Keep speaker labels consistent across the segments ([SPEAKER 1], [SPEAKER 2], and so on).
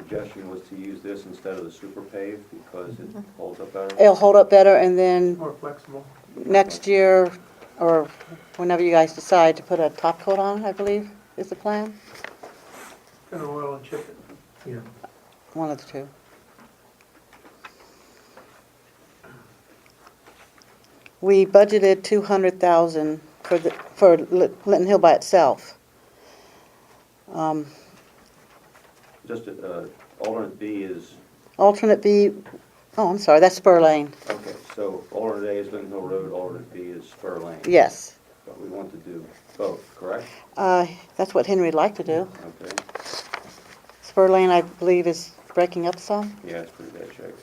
[SPEAKER 1] Suggestion was to use this instead of the super pave because it holds up better.
[SPEAKER 2] It'll hold up better, and then
[SPEAKER 3] More flexible.
[SPEAKER 2] next year, or whenever you guys decide to put a top coat on, I believe, is the plan?
[SPEAKER 3] Gonna oil and chip it. Yeah.
[SPEAKER 2] One of the two. We budgeted two hundred thousand for the, for Lit- Linton Hill by itself. Um,
[SPEAKER 1] Just, uh, alternate B is,
[SPEAKER 2] Alternate B, oh, I'm sorry, that's Spur Lane,
[SPEAKER 1] okay, so alternate A is Linden Hill Road, alternate B is Spur Lane.
[SPEAKER 2] yes.
[SPEAKER 1] But we want to do both, correct?
[SPEAKER 2] Uh, that's what Henry'd like to do.
[SPEAKER 1] Okay,
[SPEAKER 2] Spur Lane, I believe, is breaking up some.
[SPEAKER 1] yeah, it's pretty bad shape.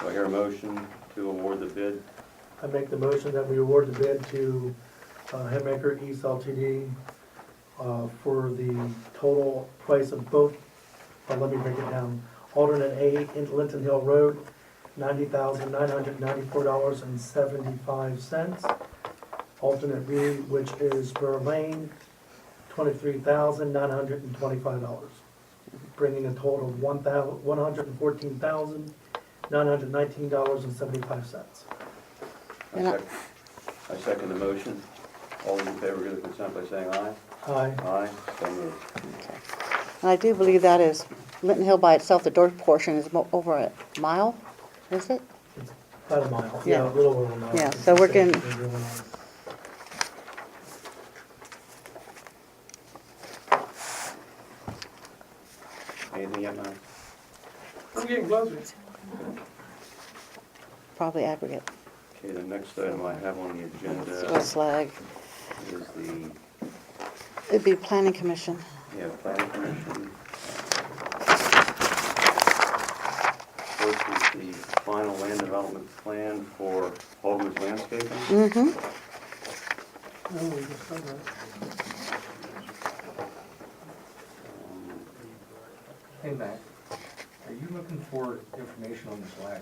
[SPEAKER 1] Do I hear a motion to award the bid?
[SPEAKER 3] I make the motion that we award the bid to uh, Hemaker East LTD uh, for the total price of both, uh, let me break it down. Alternate A, in Linton Hill Road, ninety thousand nine hundred ninety-four dollars and seventy-five cents. Alternate B, which is Burr Lane, twenty-three thousand nine hundred and twenty-five dollars, bringing a total of one thou, one hundred and fourteen thousand nine hundred nineteen dollars and seventy-five cents.
[SPEAKER 1] I
[SPEAKER 2] Yeah.
[SPEAKER 1] sec- I second the motion. All those in favor give their consent by saying aye.
[SPEAKER 3] Aye.
[SPEAKER 1] Aye, so moved.
[SPEAKER 2] Okay. And I do believe that is, Linton Hill by itself, the dirt portion is mo- over a mile, is it?
[SPEAKER 3] It's About a mile,
[SPEAKER 2] Yeah.
[SPEAKER 3] yeah, a little over a mile.
[SPEAKER 2] Yeah, so we're getting-
[SPEAKER 1] Anything yet, Mike?
[SPEAKER 3] I'm getting closer.
[SPEAKER 2] Probably aggregate,
[SPEAKER 1] Okay, the next item I have on the
[SPEAKER 4] uh,
[SPEAKER 1] agenda
[SPEAKER 2] West Lag.
[SPEAKER 1] is the,
[SPEAKER 2] It'd be planning commission.
[SPEAKER 1] yeah, planning commission. First is the final land development plan for Holman's Landscaping.
[SPEAKER 2] Mm-hmm.
[SPEAKER 1] Um,
[SPEAKER 5] Hey, Matt, are you looking for information on this lag?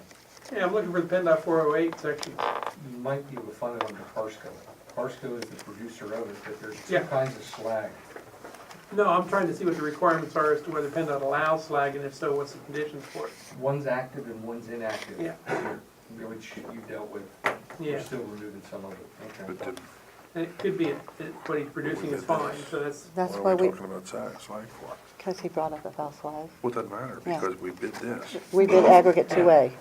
[SPEAKER 6] Yeah, I'm looking for the PennDOT 408 section.
[SPEAKER 5] You might be able to find it under Parsco. Parsco is the producer of it, but there's two
[SPEAKER 6] Yeah.
[SPEAKER 5] kinds of slag.
[SPEAKER 6] No, I'm trying to see what the requirements are as to whether PennDOT allows slag, and if so, what's the conditions for it?
[SPEAKER 5] One's active and one's inactive.
[SPEAKER 6] Yeah.
[SPEAKER 5] Which you dealt with. You're
[SPEAKER 6] Yeah,
[SPEAKER 5] still removing some of it. Okay.
[SPEAKER 6] and it could be that that what he's producing is fine, so that's,
[SPEAKER 2] That's
[SPEAKER 4] What
[SPEAKER 2] why
[SPEAKER 4] are we
[SPEAKER 2] we,
[SPEAKER 4] talking about tax, slag for?
[SPEAKER 2] because he brought up about slag.
[SPEAKER 4] What does that matter,
[SPEAKER 2] Yeah.
[SPEAKER 4] because we bid this.
[SPEAKER 2] We did aggregate two A,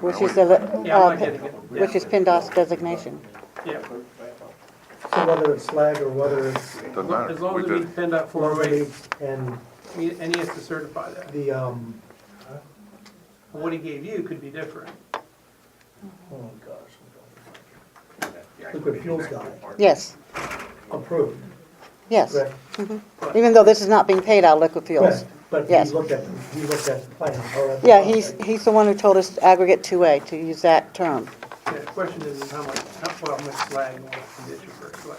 [SPEAKER 2] which is the, li-
[SPEAKER 6] yeah, I'm
[SPEAKER 2] uh,
[SPEAKER 6] not getting it. Yeah.
[SPEAKER 2] which is PennDOT's designation.
[SPEAKER 6] Yeah,
[SPEAKER 3] So whether it's slag or whether it's
[SPEAKER 4] Doesn't matter,
[SPEAKER 6] as long
[SPEAKER 4] we
[SPEAKER 6] as it
[SPEAKER 4] bid
[SPEAKER 6] meets
[SPEAKER 4] it.
[SPEAKER 6] PennDOT
[SPEAKER 3] four-way
[SPEAKER 6] 408,
[SPEAKER 3] and
[SPEAKER 6] he- and he has to certify that.
[SPEAKER 3] the, um,
[SPEAKER 6] What he gave you could be different.
[SPEAKER 3] oh gosh. Liquid fuels guy
[SPEAKER 2] Yes,
[SPEAKER 3] approved,
[SPEAKER 2] yes.
[SPEAKER 3] correct?
[SPEAKER 2] Even though this is not being paid out of liquid fuels.
[SPEAKER 3] Correct, But he
[SPEAKER 2] Yes.
[SPEAKER 3] looked at, he looked at the plan, all right?
[SPEAKER 2] Yeah, he's, he's the one who told us to aggregate two A, to use that term.
[SPEAKER 6] Yeah, The question is is how much, how well, how much slag and what condition for it, slag,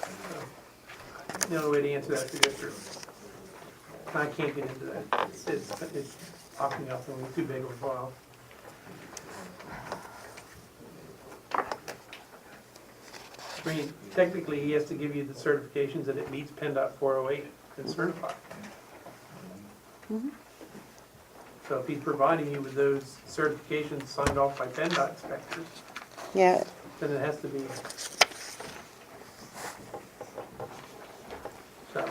[SPEAKER 6] so. The only way to answer that is to go through. I can't get into that. It's, it's it's popping up and it's too big of a file. I mean, technically, he has to give you the certifications that it meets PennDOT 408 and certified. So if he's providing you with those certifications signed off by PennDOT inspectors,
[SPEAKER 2] Yeah,
[SPEAKER 6] then it has to be. So,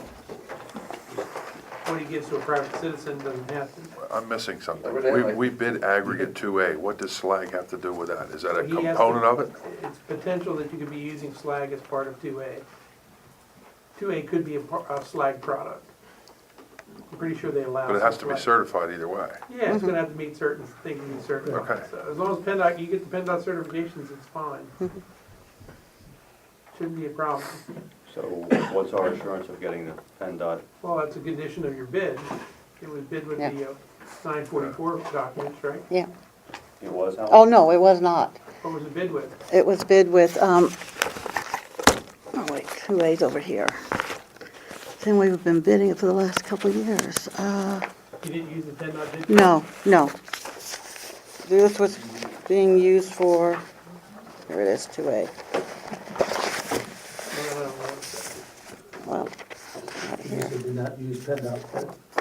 [SPEAKER 6] what he gives to a private citizen doesn't have to.
[SPEAKER 4] I'm missing something. We, we bid aggregate two A, what does slag have to do with that? Is that a
[SPEAKER 6] He has to-
[SPEAKER 4] component of it?
[SPEAKER 6] It's potential that you could be using slag as part of two A. Two A could be a, par- a slag product. I'm pretty sure they allow.
[SPEAKER 4] But it has to be
[SPEAKER 6] slag.
[SPEAKER 4] certified either way.
[SPEAKER 6] Yeah, it's gonna have to meet certain things, meet certain.
[SPEAKER 4] Okay.
[SPEAKER 6] ones. So as long as PennDOT, you get the PennDOT certifications, it's fine. Shouldn't be a problem.
[SPEAKER 1] So what's our assurance of getting the E PennDOT?
[SPEAKER 6] Well, that's a condition of your bid. It was bid with the uh, 944 documents, right?
[SPEAKER 2] yeah.
[SPEAKER 1] It was how?
[SPEAKER 2] Oh, no, it was not.
[SPEAKER 6] What was it bid with?
[SPEAKER 2] It was bid with, um, oh wait, two A's over here. Then we've been bidding it for the last couple of years. Uh,
[SPEAKER 6] You didn't use the 10 dot, did you?
[SPEAKER 2] no, no. This was being used for, here it is, two A.
[SPEAKER 6] No, no, no, no.
[SPEAKER 2] Well, right here.
[SPEAKER 3] Did not use PennDOT quote.